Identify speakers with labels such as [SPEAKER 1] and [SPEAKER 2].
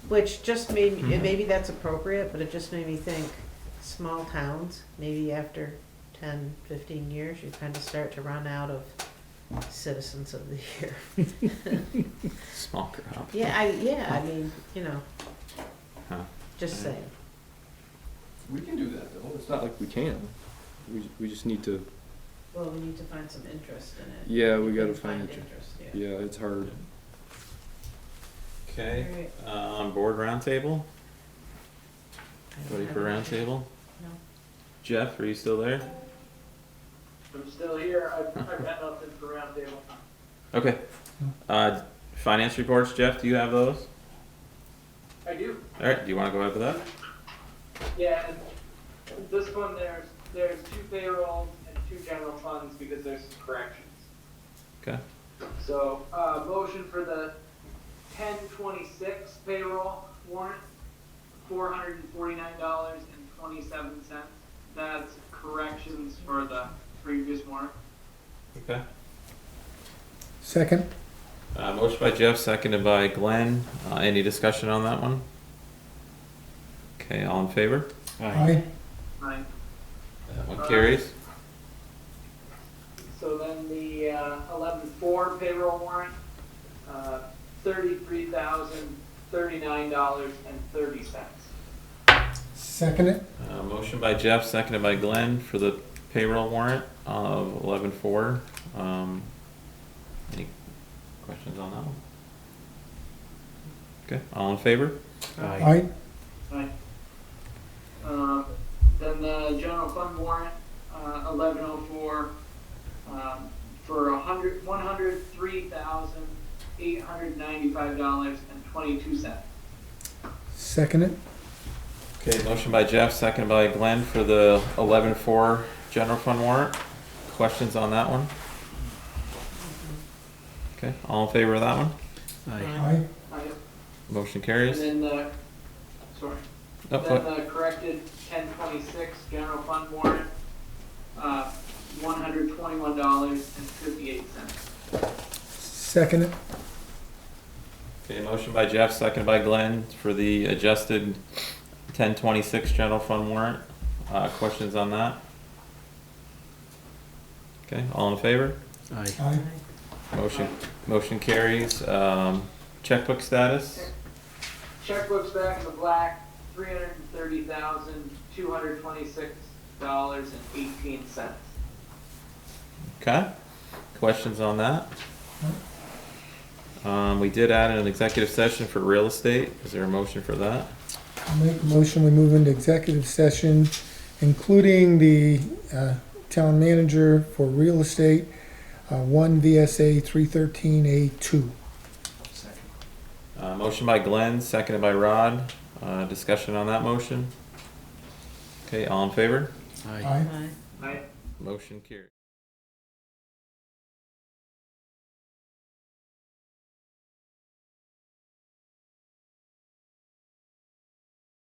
[SPEAKER 1] Which just made, me-
[SPEAKER 2] Mm-hmm.
[SPEAKER 1] and maybe that's appropriate, but it just made me think, small towns, maybe after 10, 15 years, you kind of start to run out of citizens of the year.
[SPEAKER 3] Small crop.
[SPEAKER 1] Yeah, I, yeah, I mean, you know,
[SPEAKER 3] Huh.
[SPEAKER 1] just saying.
[SPEAKER 2] We can do that though. It's not like we can. We, we just need to,
[SPEAKER 1] Well, we need to find some interest in it.
[SPEAKER 2] yeah, we gotta find it.
[SPEAKER 1] yeah.
[SPEAKER 2] Yeah, it's hard.
[SPEAKER 3] Okay, uh, on board roundtable, ready for roundtable?
[SPEAKER 1] No.
[SPEAKER 3] Jeff, are you still there?
[SPEAKER 4] I'm still here. I've, I've had nothing for roundtable.
[SPEAKER 3] Okay. Uh, finance reports, Jeff, do you have those?
[SPEAKER 4] I do.
[SPEAKER 3] All right, do you wanna go over that?
[SPEAKER 4] Yeah, and this one, there's, there's two payrolls and two general funds because there's some corrections.
[SPEAKER 3] Okay,
[SPEAKER 4] So, uh, motion for the ten twenty-six payroll warrant, four hundred and forty-nine dollars and twenty-seven cents. That's corrections for the previous warrant.
[SPEAKER 3] okay.
[SPEAKER 5] Second?
[SPEAKER 3] Uh, motion by Jeff, seconded by Glenn. Uh, any discussion on that one? Okay, all in favor?
[SPEAKER 5] Aye.
[SPEAKER 4] Right.
[SPEAKER 3] That one carries.
[SPEAKER 4] So then the uh, eleven four payroll warrant, uh, thirty-three thousand, thirty-nine dollars and thirty cents.
[SPEAKER 5] Second it?
[SPEAKER 3] Uh, motion by Jeff, seconded by Glenn for the payroll warrant of eleven four. Um, any questions on that one? Okay, all in favor?
[SPEAKER 5] Aye.
[SPEAKER 4] Um, Then the general fund warrant, eleven oh four, um, for a hundred, one hundred three thousand, eight hundred ninety-five dollars and twenty-two cents.
[SPEAKER 5] Second it?
[SPEAKER 3] Okay, motion by Jeff, seconded by Glenn for the eleven four general fund warrant. Questions on that one? Okay, all in favor of that one?
[SPEAKER 5] Aye.
[SPEAKER 3] Motion
[SPEAKER 4] And
[SPEAKER 3] carries.
[SPEAKER 4] then the, sorry.
[SPEAKER 3] Oh,
[SPEAKER 4] Then
[SPEAKER 3] go-
[SPEAKER 4] the corrected ten twenty-six general fund warrant, uh, one hundred twenty-one dollars and fifty-eight cents.
[SPEAKER 5] Second it?
[SPEAKER 3] Okay, motion by Jeff, seconded by Glenn for the adjusted ten twenty-six general fund warrant. Uh, questions on that? Okay, all in favor?
[SPEAKER 5] Aye.
[SPEAKER 3] Motion, motion carries. Um, checkbook status?
[SPEAKER 4] Checkbook's back in the black, three hundred and thirty thousand, two hundred twenty-six dollars and eighteen cents.
[SPEAKER 3] Okay, questions on that? Um, we did add an executive session for real estate. Is there a motion for that?
[SPEAKER 5] I'll Make a motion, we move into executive session, including the, uh, town manager for real estate, uh, one VSA three thirteen A two.
[SPEAKER 3] Uh, motion by Glenn, seconded by Rod. Uh, discussion on that motion? Okay, all in favor?
[SPEAKER 5] Aye.
[SPEAKER 1] Aye.
[SPEAKER 4] Right?
[SPEAKER 3] Motion carries.